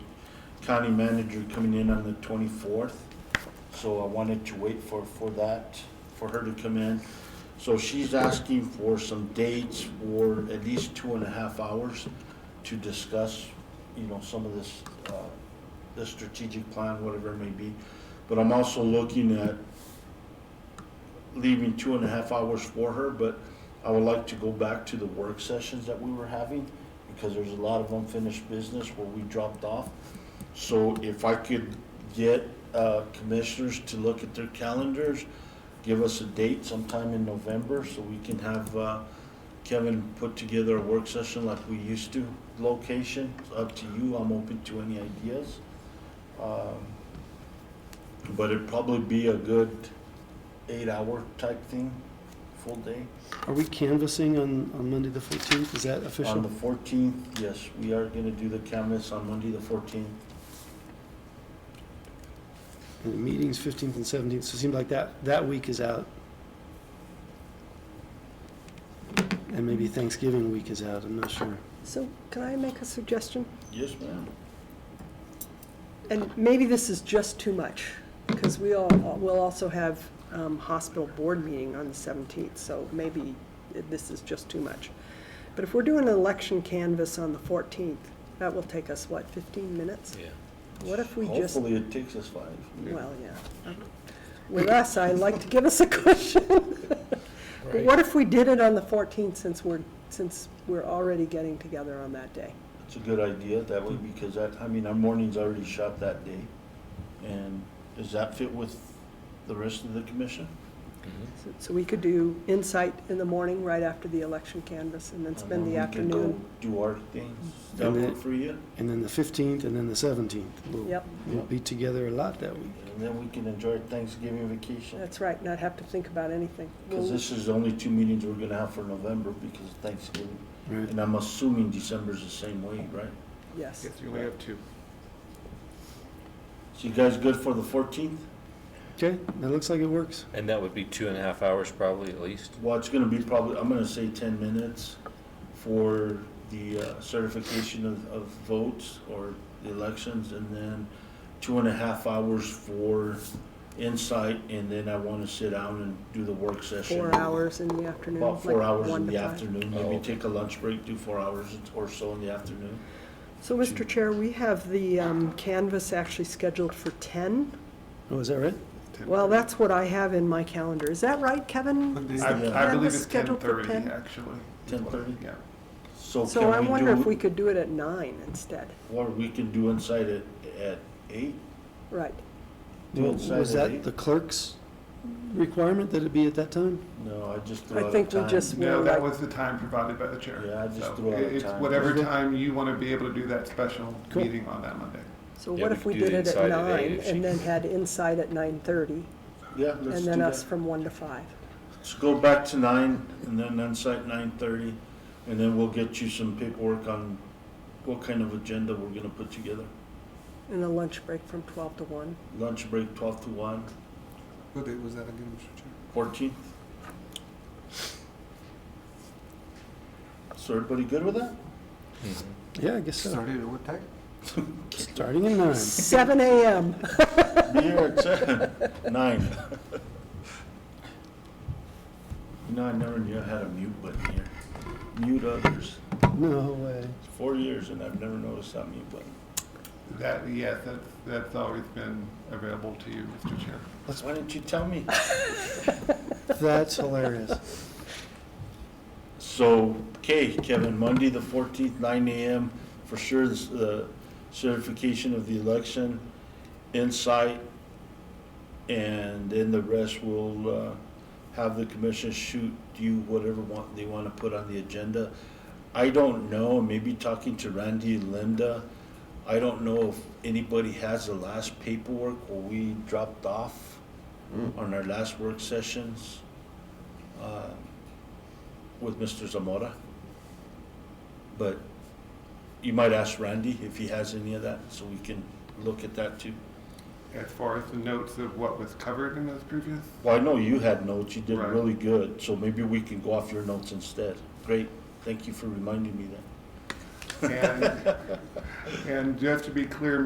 county manager coming in on the twenty-fourth. So I wanted to wait for, for that, for her to come in. So she's asking for some dates for at least two and a half hours to discuss, you know, some of this, uh, the strategic plan, whatever it may be. But I'm also looking at leaving two and a half hours for her, but I would like to go back to the work sessions that we were having because there's a lot of unfinished business where we dropped off. So if I could get uh, commissioners to look at their calendars, give us a date sometime in November so we can have uh, Kevin put together a work session like we used to. Location, it's up to you, I'm open to any ideas. Um, But it'd probably be a good eight-hour type thing, full day. Are we canvassing on, on Monday the 14th? Is that On the official? fourteenth, yes, we are gonna do the canvas on Monday, the fourteenth. And the meeting's 15th and 17th, so it seemed like that, that week is out. And maybe Thanksgiving week is out, I'm not sure. So can I make a suggestion? Yes, ma'am. And maybe this is just too much, because we all, we'll also have um, hospital board meeting on the 17th, so maybe this is just too much. But if we're doing an election canvas on the 14th, that will take us, what, 15 minutes? Yeah. What if we just, Hopefully it takes us five. well, yeah. With us, I like to give us a cushion. But what if we did it on the 14th, since we're, since we're already getting together on that day? It's a good idea that way because that, I mean, our morning's already shot that day. And does that fit with the rest of the commission? So- So we could do insight in the morning, right after the election canvas, and then spend the And then we afternoon. Mm-hmm. can go Do our things. Does That And work then- for you? And then the 15th and then the 17th. We'll- Yep, We'll be together a lot that week. And then we can enjoy Thanksgiving vacation. that's right, not have to think about anything. Cause We'll- this is the only two meetings we're gonna have for November because of Thanksgiving. Right. And I'm assuming December's the same way, right? Yes, Yes, you only have two. So you guys good for the fourteenth? Okay, that looks like it works. And that would be two and a half hours probably at least. Well, it's gonna be probably, I'm gonna say ten minutes for the uh, certification of, of votes or the elections, and then two and a half hours for insight, and then I wanna sit down and do the work session. four hours in the afternoon. About four like hours one in to the five. afternoon, Oh. maybe take a lunch break, do four hours or so in the afternoon. So, Mr. Chair, we have the um, canvas actually scheduled for 10. Oh, is that right? Well, that's what I have in my calendar. Is that right, Kevin? I, Is Monday. the Yeah. I believe canvas it's ten scheduled for thirty, 10? actually. 10:30? Yeah. So So I can we wonder if we do, could do it at nine instead. or we can do insight at, at eight? Right, Do Well, inside Was at that eight? the clerk's requirement that it be at that time? No, I just threw I out a think we time. just- No, Well, that like- was the time provided by the chair. Yeah, I just So threw out it- a It's time. whatever Okay. time you want to be able to do that special Cool. meeting on that Monday. so Yeah, what we if could we do did the it at inside at eight nine, if she- and then had insight at 9:30, Yeah, let's and do then that. us from one to five? Let's go back to nine, and then on-site nine-thirty, and then we'll get you some paperwork on what kind of agenda we're gonna put together. And a lunch break from 12 to 1. Lunch break twelve to one, What date was that again, Mr. Chair? fourteenth. So everybody good with that? Yeah, I guess so. at what time? Starting at nine. 7 a.m. Be here at seven, nine. You know, I never knew I had a mute button here. Mute others. No way. Four years and I've never noticed that mute button. That, yes, that's, that's always been available to you, Mr. Chair. Why didn't you tell me? That's hilarious. So, okay, Kevin, Monday, the fourteenth, nine AM, for sure, this, the certification of the election, insight, and then the rest will, uh, have the commission shoot you whatever want, they wanna put on the agenda. I don't know, maybe talking to Randy and Linda, I don't know if anybody has the last paperwork where we dropped off on our last work sessions. Uh, with Mr. Zamora. But you might ask Randy if he has any of that, so we can look at that too. As far as the notes of what was covered in those previous, Well, I know you had notes, you did Right. really good, so maybe we can go off your notes instead. Great, thank you for reminding me that. and, and just to be clear,